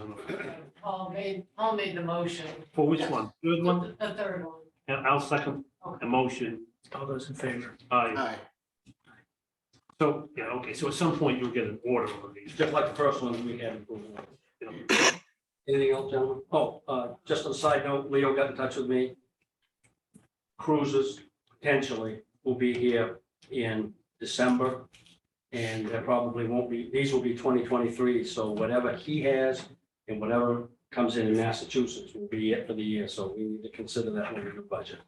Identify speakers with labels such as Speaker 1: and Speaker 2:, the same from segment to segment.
Speaker 1: on the-
Speaker 2: Paul made, Paul made the motion,
Speaker 1: For which one? Third one?
Speaker 2: the the third one.
Speaker 1: Yeah, I'll second the motion.
Speaker 3: All those in favor?
Speaker 1: Aye.
Speaker 4: Aye.
Speaker 1: So, yeah, okay, so at some point you'll get an order on these.
Speaker 3: Just like the first one, we had approval.
Speaker 1: you know.
Speaker 3: Anything else, gentlemen? Oh, uh, just on a side note, Leo got in touch with me. Cruises potentially will be here in December. And there probably won't be, these will be twenty twenty-three, so whatever he has and whatever comes in in Massachusetts will be it for the year, so we need to consider that when we do budget.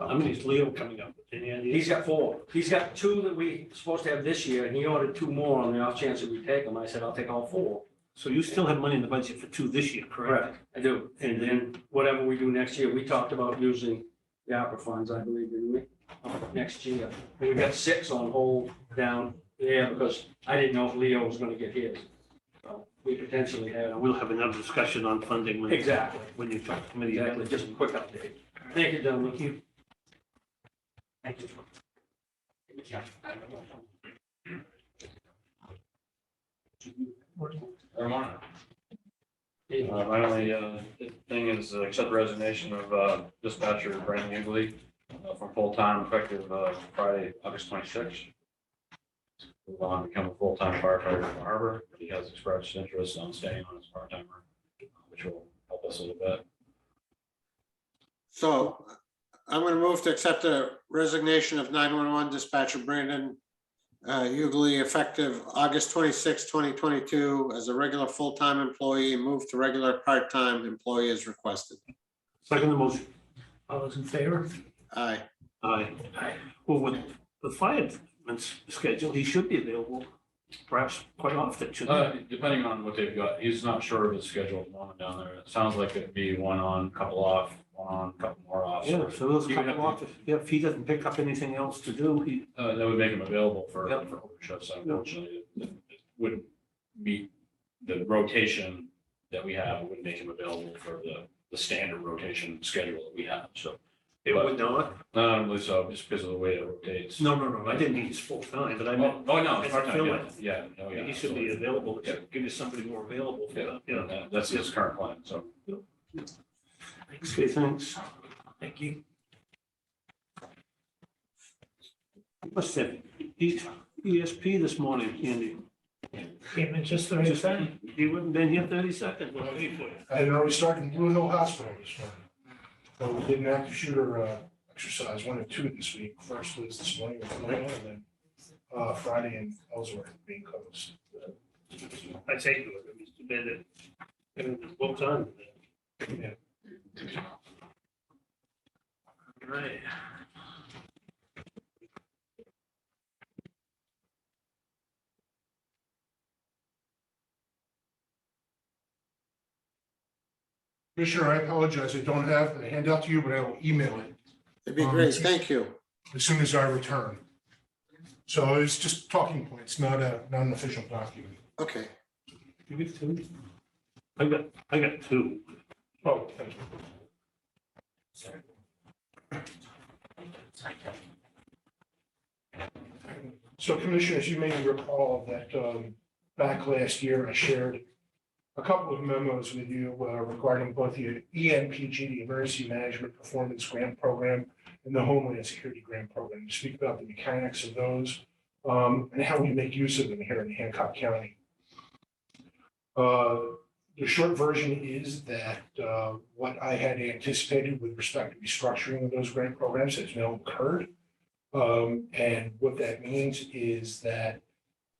Speaker 1: How many is Leo coming up? Any
Speaker 3: He's
Speaker 1: ideas?
Speaker 3: got four. He's got two that we supposed to have this year, and he ordered two more on the off chance that we take them. I said, I'll take all four.
Speaker 1: So you still have money in the budget for two this year, correct?
Speaker 3: Correct. I do. And then whatever we do next year, we talked about using the opera funds, I believe, didn't we? Uh, Next year. And we've got six on hold down there because I didn't know if Leo was gonna get his. So We potentially
Speaker 1: And
Speaker 3: have.
Speaker 1: We'll have another discussion on funding when.
Speaker 3: Exactly.
Speaker 1: When you talk to committee.
Speaker 3: Exactly. Just a quick update. Thank you, gentlemen.
Speaker 1: Thank you.
Speaker 5: Vermont. Uh, My only uh, thing is uh, accept the resignation of uh, dispatcher Brandon Ugley uh, from full-time effective uh, Friday, August twenty-sixth. Move on to become a full-time firefighter in the harbor. He has expressed interest on staying on as part-timer, uh, which will help us a little bit.
Speaker 4: So I'm going to move to accept the resignation of 911 dispatcher Brandon uh, Ugly effective August 26, 2022, as a regular full-time employee, move to regular part-time employee as requested.
Speaker 1: Second the motion.
Speaker 3: All those in favor?
Speaker 4: Aye.
Speaker 1: Aye.
Speaker 3: Aye.
Speaker 1: Well, with the fireman's schedule, he should be available perhaps quite often, shouldn't he?
Speaker 5: Uh, Depending on what they've got, he's not sure of his schedule at the moment down there. It sounds like it'd be one on, couple off, one on, couple more
Speaker 3: Uh,
Speaker 5: off.
Speaker 1: Yeah, so those
Speaker 5: He would have
Speaker 1: couple
Speaker 5: to-
Speaker 1: off, yeah, if he doesn't pick up anything else to do, he,
Speaker 5: Uh, that would make them available for,
Speaker 1: Yep.
Speaker 5: for shifts, unfortunately, it it wouldn't meet the rotation that we have, It wouldn't make them available for the, the standard rotation schedule that we have, so.
Speaker 1: it would not.
Speaker 5: No, I don't believe so, just because of the way it rotates.
Speaker 1: No, no, no, I didn't mean he's full time, but I meant
Speaker 5: Oh, oh, no,
Speaker 1: As
Speaker 5: it's
Speaker 1: a
Speaker 5: part-time, yeah,
Speaker 1: fill-in.
Speaker 5: yeah, oh, yeah.
Speaker 1: he should be
Speaker 5: absolutely.
Speaker 1: available, it should give you somebody more available for that, yeah.
Speaker 5: Yeah, that's his current plan, so.
Speaker 1: Okay, thanks. Thank you. Must have E- ESP this morning, Andy.
Speaker 6: Came in just the right
Speaker 1: Just-
Speaker 6: time.
Speaker 1: He wouldn't been here thirty seconds. when I leave for you.
Speaker 6: I had already started in Blue Hill Hospital this morning. So we did an active shooter uh, exercise, one and two this week. First was this morning with Blue Hill and then uh, Friday in Ellsworth being closed.
Speaker 1: I take it, it was too bad that, it was well done.
Speaker 6: Yeah.
Speaker 1: Right.
Speaker 6: Commissioner, I apologize. I don't have a handout to you, but I will email it
Speaker 4: It'd be
Speaker 6: Oh,
Speaker 4: great. Thank you.
Speaker 6: as soon as I return. So it's just talking points, not a, not an official document.
Speaker 4: Okay.
Speaker 1: You get two? I got, I got two.
Speaker 6: Oh, thank you. So commissioners, you may recall that um, back last year, I shared a couple of memos with you uh, regarding both the E EMPG, the Emergency Management Performance Grant Program, and the Homeland Security Grant Program, to speak about the mechanics of those um, and how we make use of them here in Hancock County. Uh, the short version is that uh, what I had anticipated with respect to restructuring of those grant programs has now occurred. Um, And what that means is that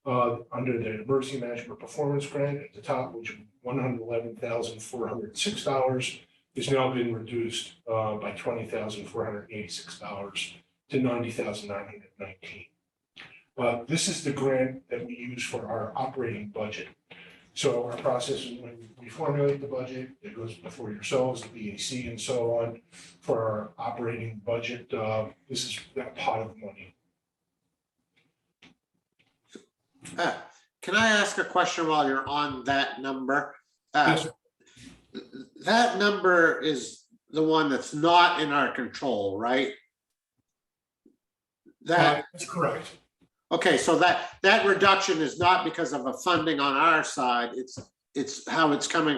Speaker 6: uh, under the emergency management performance grant at the top, which one hundred eleven thousand four hundred six dollars has now been reduced uh, by twenty thousand four hundred eighty-six dollars to ninety thousand nine hundred nineteen. Uh, This is the grant that we use for our operating budget. So our process is when we formulate the budget, it goes before yourselves, the BAC and so on for our operating budget. uh, This is that pot of money.
Speaker 4: Ah, Can I ask a question while you're on that number? Uh,
Speaker 6: Yes.
Speaker 4: That number is the one that's not in our control, right? That.
Speaker 6: Uh, That's correct.
Speaker 4: Okay, so that, that reduction is not because of a funding on our side, it's, it's how it's coming